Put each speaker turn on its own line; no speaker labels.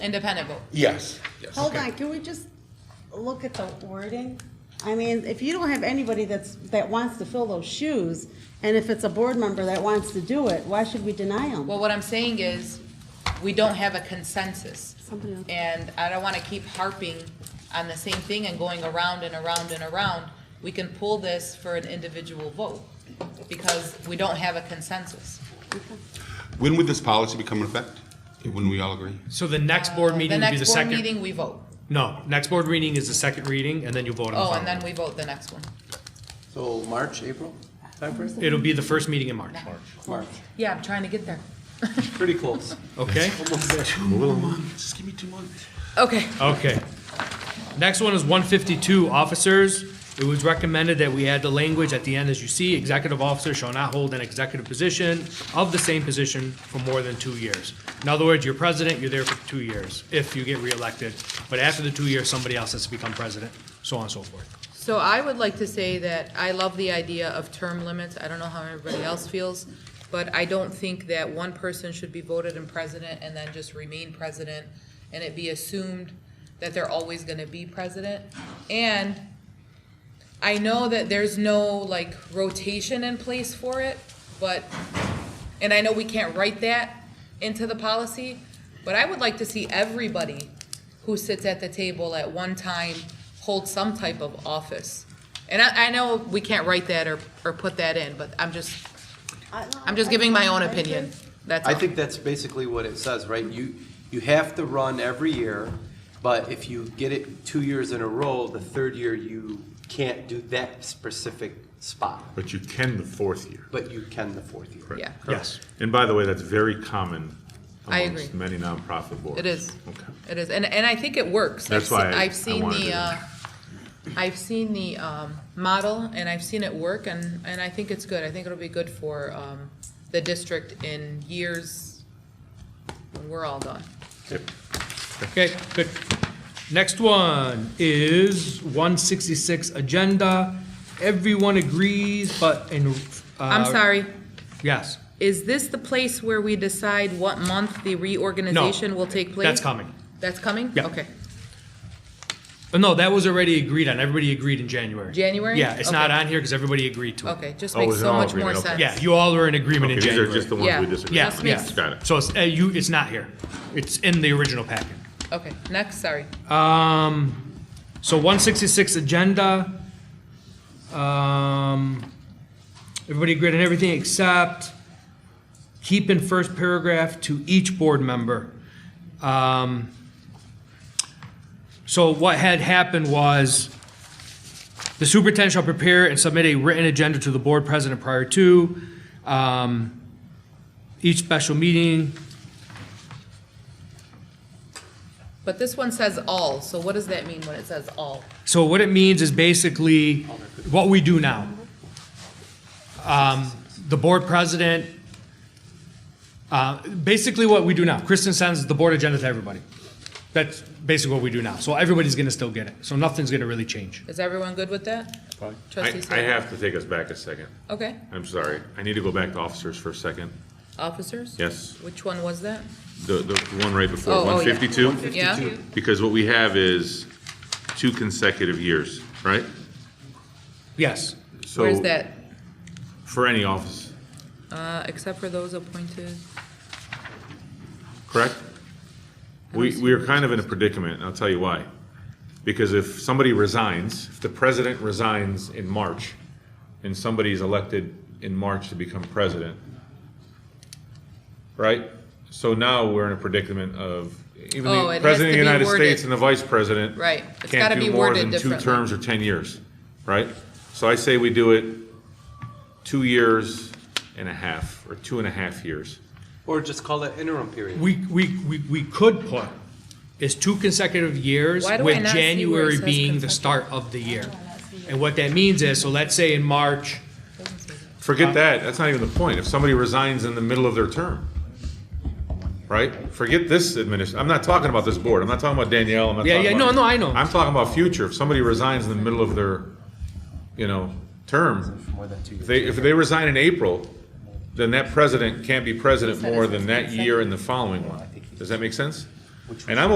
independent vote.
Yes.
Hold on, can we just look at the wording? I mean, if you don't have anybody that's, that wants to fill those shoes, and if it's a board member that wants to do it, why should we deny them?
Well, what I'm saying is, we don't have a consensus.
Somebody else.
And I don't wanna keep harping on the same thing and going around and around and around. We can pull this for an individual vote, because we don't have a consensus.
When would this policy become in effect? When we all agree?
So the next board
The
meeting would be the
next board
second,
meeting, we vote.
no, next board reading is the second reading, and then you vote on the
Oh,
final.
and then we vote the next one.
So Oh, March, April timeframe?
It'll be the first meeting in March,
March.
Yeah, I'm trying to get there.
Pretty close.
okay?
Just give me two months.
Okay.
Okay. Next one is one fifty-two, officers. It was recommended that we add the language at the end, as you see, executive officer shall not hold an executive position of the same position for more than two years. In other words, you're president, you're there for two years, if you get reelected, but after the two years, somebody else has to become president, so on and so forth.
So I would like to say that I love the idea of term limits. I don't know how everybody else feels, but I don't think that one person should be voted in president and then just remain president, and it be assumed that they're always gonna be president. And I know that there's no, like, rotation in place for it, but, and I know we can't write that into the policy, but I would like to see everybody who sits at the table at one time hold some type of office. And I, I know we can't write that or, or put that in, but I'm just, I'm just giving my own opinion. That's
I
all.
think that's basically what it says, right? You, you have to run every year, but if you get it two years in a row, the third year you can't do that specific spot,
But you can the fourth year.
but you can the fourth year.
Yeah.
Yes.
And by the way, that's very common
I
amongst
agree.
many nonprofit boards.
It is.
Okay.
It is, and, and I think it works. I've
That's
seen-
why I-
I've
I
seen
wanted
the,
it.
uh, I've seen the, um, model and I've seen it work and, and I think it's good. I think it'll be good for, um, the district in years when we're all done.
Okay, good. Next one is one sixty-six agenda. Everyone agrees, but in. uh,
I'm sorry,
Yes.
is this the place where we decide what month the reorganization will take place?
That's coming.
That's coming?
Yeah.
Okay.
Uh, No, that was already agreed on. Everybody agreed in January.
January?
Yeah, it's not
Okay.
on here because everybody agreed to it.
Okay, just
Oh,
makes
it's
so
all
much more
agreement, okay.
sense.
Yeah, you all were in agreement
Okay,
in
these are
January.
just the ones
Yeah.
we disagree
Yeah,
Just
on.
yeah.
makes-
Got it.
So it's, uh, you, it's not here. It's in the original packet.
Okay, next, sorry.
Um, so one sixty-six agenda. Um, everybody agreed on everything except keep in first paragraph to each board member. Um, so what had happened was the superintendent shall prepare and submit a written agenda to the board president prior to, um, each special meeting.
But this one says all, so what does that mean when it says all?
So what it means is basically what we do now. Um, The board president, uh, basically what we do now, Kristen sends the board agenda to everybody. That's basically what we do now. So everybody's gonna still get it. So nothing's gonna really change.
Is everyone good with that? Trustee
I, I
Staley?
have to take us back a second.
Okay,
I'm sorry. I need to go back to officers for a second.
officers?
Yes,
Which one was that?
the, the one right before,
Oh, oh, yeah.
152?
Yeah,
Because what we have is two consecutive years, right?
Yes.
So
where's that?
For any office,
Uh, except for those appointed,
correct? We, we are kind of in a predicament, and I'll tell you why. Because if somebody resigns, if the president resigns in March, and somebody's elected in March to become president, right? So now we're in a predicament of, even
Oh, it
the
has
president of
to be
the United
worded.
States and the vice president.
Right. It's gotta
Can't
be
do more
worded
than two
differently.
terms or 10 years, right? So I say we do it two years and a half, or two and a half years.
Or just call it interim period.
We, we, we, we could put is two consecutive years
Why do I
with
not see where it
January
says
being the
consecutive?
start of the year. And what that means is, so let's say in March,
Forget that. That's not even the point. If somebody resigns in the middle of their term, right? Forget this administration. I'm not talking about this board. I'm not talking about Danielle. I'm not
Yeah,
talking
yeah,
about-
no, no, I know.
I'm talking about future. If somebody resigns in the middle of their, you know, term,
More than two
if
years.
they, if they resign in April, then that president can't be president more than that year and the following one. Does that make sense? And I'm